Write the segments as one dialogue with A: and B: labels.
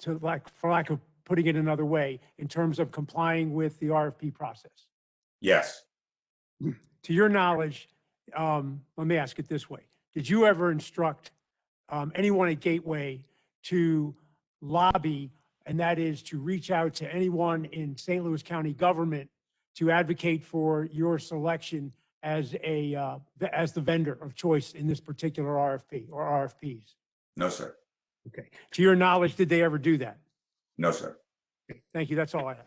A: to like, for lack of putting it another way, in terms of complying with the RFP process?
B: Yes,
A: To your knowledge, um, let me ask it this way. Did you ever instruct um, anyone at Gateway to lobby, and that is to reach out to anyone in St. Louis County government to advocate for your selection as a, uh, the- as the vendor of choice in this particular RFP or RFPs?
B: no, sir.
A: Okay. To your knowledge, did they ever do that?
B: No, sir.
A: Okay, Thank you. That's all I have.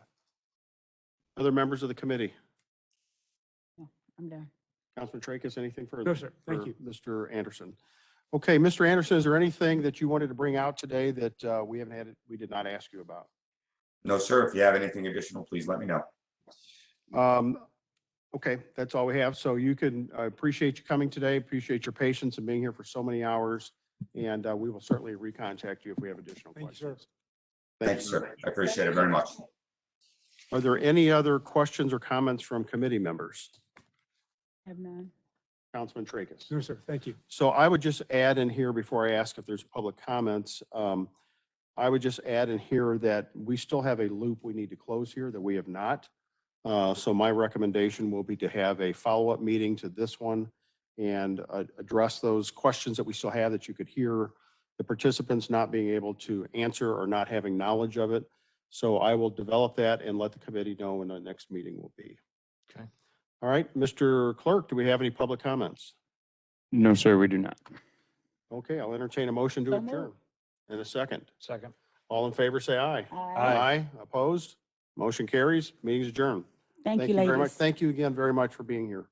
C: Other members of the committee?
D: I'm done.
C: Councilman Tracus, anything further?
A: No, sir. Thank
C: for
A: you.
C: Mr. Anderson. Okay, Mr. Anderson, is there anything that you wanted to bring out today that uh, we haven't had, we did not ask you about?
B: No, sir. If you have anything additional, please let me know.
C: Um, Okay, that's all we have. So you can, I appreciate you coming today, appreciate your patience and being here for so many hours. And uh, we will certainly recontact you if we have additional
A: Thank you, sir.
C: questions.
B: Thank you,
C: very
B: sir.
C: much.
B: I appreciate it very much.
C: Are there any other questions or comments from committee members?
D: Have none.
C: Councilman Tracus?
A: No, sir. Thank you.
C: So I would just add in here before I ask if there's public comments, um, I would just add in here that we still have a loop we need to close here that we have not. Uh, so my recommendation will be to have a follow-up meeting to this one and uh, address those questions that we still have that you could hear the participants not being able to answer or not having knowledge of it. So I will develop that and let the committee know when the next meeting will be.
E: Okay.
C: All right, Mr. Clerk, do we have any public comments?
E: No, sir, we do not.
C: Okay, I'll entertain a motion to
D: So moved.
C: adjourn in a second.
E: Second.
C: All in favor, say aye.
D: Aye.
C: Opposed? Motion carries. Meeting's adjourned.
D: Thank you,
C: very much.
D: ladies.
C: Thank you again very much for being here.